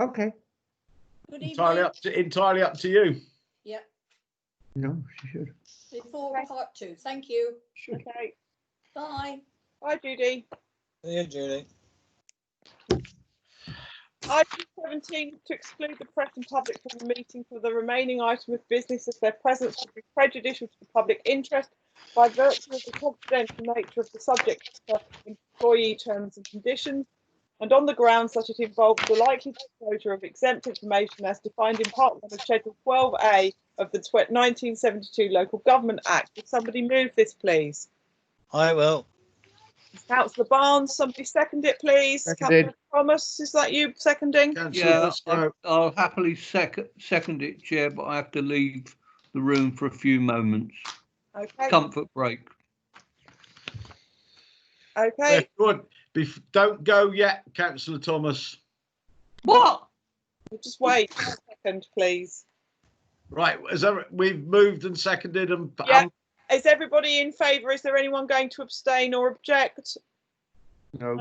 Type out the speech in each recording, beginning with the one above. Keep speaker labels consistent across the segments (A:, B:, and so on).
A: Okay,
B: Good
C: Entirely
B: evening.
C: up, to, entirely up to you.
B: Yeah,
A: no, she should.
B: before part two. Thank you.
D: Okay.
B: Bye.
D: Hi, Judy.
E: Yeah, Judy.
D: Item 17, to exclude the press and public from the meeting for the remaining item of business as their presence would be prejudicial to the public interest by virtue of the confidential nature of the subject matter, employee terms and conditions, and on the grounds that it involves the likely disclosure of exempt information as defined in Part 1 of Schedule 12A of the tw- 1972 Local Government Act. Would somebody move this, please?
E: I will.
D: Councillor Barnes, somebody second it, please.
A: Seconded.
D: Councillor Thomas, is that you seconding?
C: Councillor
F: Yeah, I-
C: Pascoe.
F: I'll happily second, second it, Chair, but I have to leave the room for a few moments.
D: Okay,
F: Comfort break.
C: Yeah,
D: okay.
C: good. Bef- don't go yet, Councillor Thomas.
F: What?
D: We'll Just wait a second, please.
C: Right, is that, we've moved and seconded and um,
D: Yeah. Is everybody in favour? Is there anyone going to abstain or object?
A: No,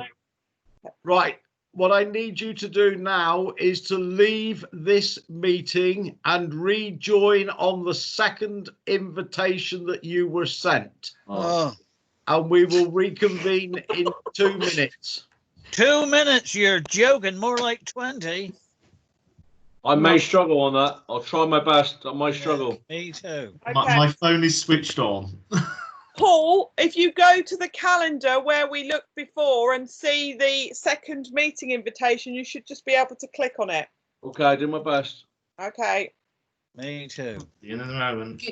C: Right. What I need you to do now is to leave this meeting and rejoin on the second invitation that you were sent.
E: Oh,
C: And we will reconvene in two minutes.
E: two minutes, you're joking. More like 20.
G: I may struggle on that. I'll try my best. I might struggle.
E: Me too.
H: My,
D: Okay.
H: my phone is switched on.
D: Paul, if you go to the calendar where we looked before and see the second meeting invitation, you should just be able to click on it.
G: Okay, I do my best.
D: Okay.
E: Me too.
H: The end of the moment.